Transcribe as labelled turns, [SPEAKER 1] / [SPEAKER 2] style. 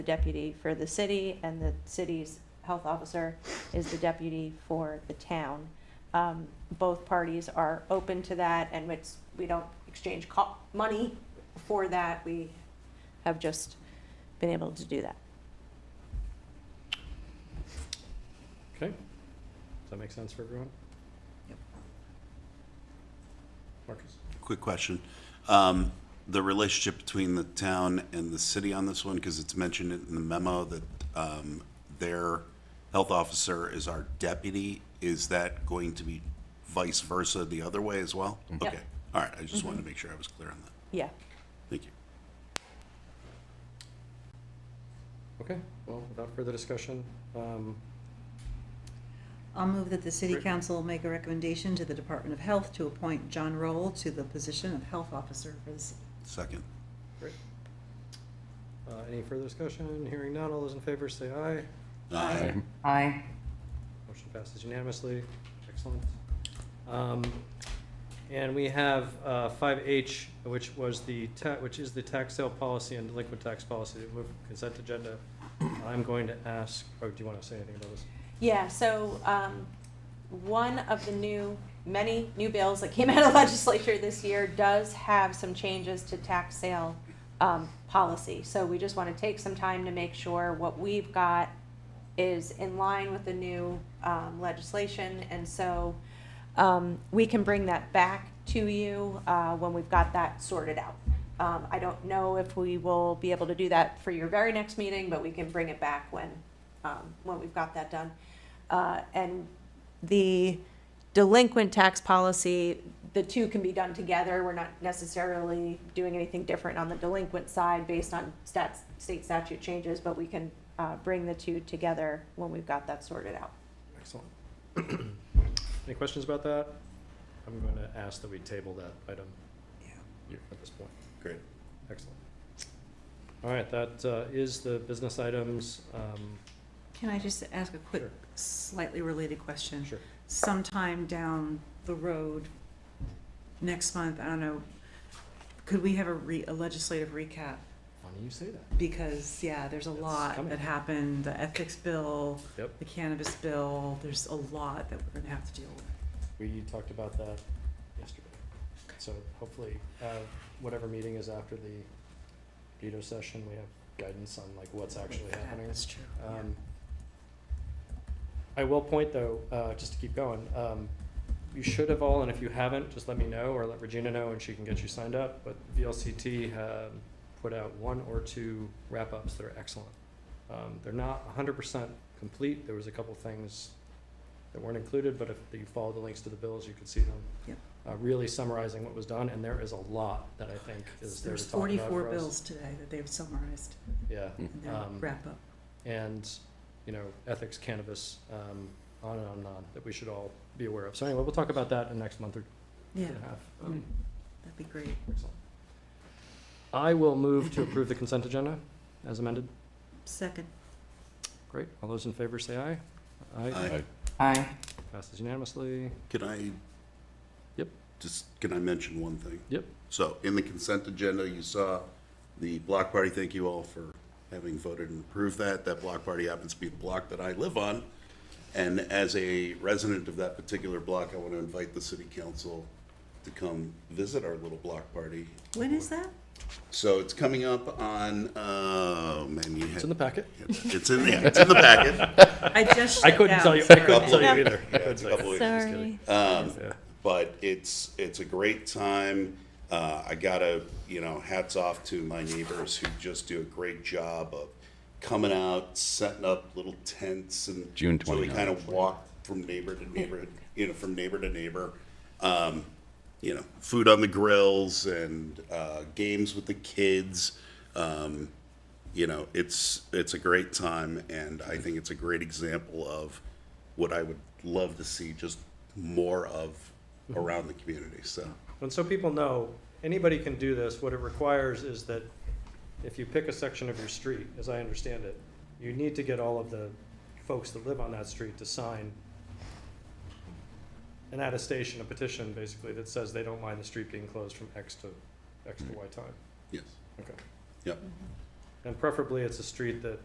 [SPEAKER 1] the deputy for the city, and the city's health officer is the deputy for the town. Um, both parties are open to that, and it's, we don't exchange co- money for that, we have just been able to do that.
[SPEAKER 2] Okay, does that make sense for everyone?
[SPEAKER 3] Yep.
[SPEAKER 2] Marcus?
[SPEAKER 4] Quick question. Um, The relationship between the town and the city on this one, because it's mentioned in the memo that um, their health officer is our deputy, is that going to be vice versa the other way as well? Okay, all right, I just wanted to make sure I was clear on that.
[SPEAKER 1] Yeah,
[SPEAKER 4] Thank you.
[SPEAKER 2] Okay, well, without further discussion, um,
[SPEAKER 3] I'll move that the city
[SPEAKER 2] Rick?
[SPEAKER 3] council make a recommendation to the Department of Health to appoint John Roll to the position of health officer for the city.
[SPEAKER 4] Second.
[SPEAKER 2] great. Uh, any further discussion? Hearing none, all those in favor say aye.
[SPEAKER 4] Aye.
[SPEAKER 5] Aye.
[SPEAKER 2] Motion passes unanimously. Excellent. Um, And we have uh, five H, which was the, ta- which is the tax sale policy and delinquent tax policy that move consent agenda. I'm going to ask, oh, do you want to say anything about this?
[SPEAKER 1] yeah, so, um, one of the new, many new bills that came out of legislature this year does have some changes to tax sale, um, policy. So we just wanna take some time to make sure what we've got is in line with the new, um, legislation. And so, um, we can bring that back to you, uh, when we've got that sorted out. Um, I don't know if we will be able to do that for your very next meeting, but we can bring it back when, um, when we've got that done. Uh, and the delinquent tax policy, the two can be done together. We're not necessarily doing anything different on the delinquent side based on stats, state statute changes, but we can, uh, bring the two together when we've got that sorted out.
[SPEAKER 2] Excellent. Any questions about that? I'm going to ask that we table that item at this point.
[SPEAKER 4] Great.
[SPEAKER 2] Excellent. All right, that uh, is the business items. Um,
[SPEAKER 3] Can I just ask a quick,
[SPEAKER 2] Sure.
[SPEAKER 3] slightly related question?
[SPEAKER 2] Sure.
[SPEAKER 3] Sometime down the road, next month, I don't know, could we have a re, a legislative recap?
[SPEAKER 2] Funny you say that.
[SPEAKER 3] Because, yeah, there's a
[SPEAKER 2] It's
[SPEAKER 3] lot
[SPEAKER 2] coming.
[SPEAKER 3] that happened, the ethics bill,
[SPEAKER 2] Yep,
[SPEAKER 3] the cannabis bill, there's a lot that we're gonna have to deal with.
[SPEAKER 2] we talked about that yesterday. So hopefully, uh, whatever meeting is after the veto session, we have guidance on like what's actually
[SPEAKER 3] Yeah,
[SPEAKER 2] happening.
[SPEAKER 3] That's true. yeah.
[SPEAKER 2] Um, I will point though, uh, just to keep going, um, you should have all, and if you haven't, just let me know or let Regina know and she can get you signed up. But VLCT um put out one or two wrap ups that are excellent. Um, they're not 100% complete. There was a couple things that weren't included, but if you follow the links to the bills, you could see them.
[SPEAKER 3] Yep.
[SPEAKER 2] Uh, really summarizing what was done, and there is a lot that I think is there
[SPEAKER 3] There's
[SPEAKER 2] to talk about
[SPEAKER 3] forty-four
[SPEAKER 2] for us.
[SPEAKER 3] bills today that they've summarized
[SPEAKER 2] Yeah.
[SPEAKER 3] in their
[SPEAKER 2] Um,
[SPEAKER 3] wrap up.
[SPEAKER 2] and, you know, ethics, cannabis, um, on and on and on, that we should all be aware of. So anyway, we'll talk about that in the next month or
[SPEAKER 3] Yeah,
[SPEAKER 2] and a half. Um,
[SPEAKER 3] that'd be great.
[SPEAKER 2] excellent. I will move to approve the consent agenda as amended.
[SPEAKER 3] Second,
[SPEAKER 2] Great. All those in favor say aye. Aye.
[SPEAKER 4] Aye.
[SPEAKER 5] Aye.
[SPEAKER 2] Passes unanimously.
[SPEAKER 4] Can I?
[SPEAKER 2] Yep.
[SPEAKER 4] Just, can I mention one thing?
[SPEAKER 2] Yep.
[SPEAKER 4] So in the consent agenda, you saw the block party. Thank you all for having voted and approved that. That block party happens to be the block that I live on. And as a resident of that particular block, I want to invite the city council to come visit our little block party.
[SPEAKER 3] when is that?
[SPEAKER 4] So it's coming up on, oh, man, you
[SPEAKER 2] It's in the
[SPEAKER 4] had,
[SPEAKER 2] packet.
[SPEAKER 4] it's in, yeah, it's in the packet.
[SPEAKER 3] I just.
[SPEAKER 2] I
[SPEAKER 3] shut
[SPEAKER 2] couldn't
[SPEAKER 3] down,
[SPEAKER 2] tell you, I
[SPEAKER 3] sorry.
[SPEAKER 2] couldn't tell you either.
[SPEAKER 4] Yeah, it's a couple weeks. Just kidding. Um,
[SPEAKER 2] Yeah.
[SPEAKER 4] but it's it's a great time. Uh, I gotta you know hats off to my neighbors who just do a great job of coming out, setting up little tents and
[SPEAKER 6] June
[SPEAKER 4] so we
[SPEAKER 6] 29th.
[SPEAKER 4] kind of walk from neighbor to neighbor, you know, from neighbor to neighbor. Um, you know, food on the grills and uh, games with the kids. Um, you know, it's it's a great time, and I think it's a great example of what I would love to see just more of around the community. So
[SPEAKER 2] And so people know, anybody can do this, what it requires is that if you pick a section of your street, as I understand it, you need to get all of the folks that live on that street to sign an attestation, a petition, basically, that says they don't mind the street being closed from X to, X to Y time.
[SPEAKER 4] yes,
[SPEAKER 2] Okay.
[SPEAKER 4] yep.
[SPEAKER 2] And preferably it's a street that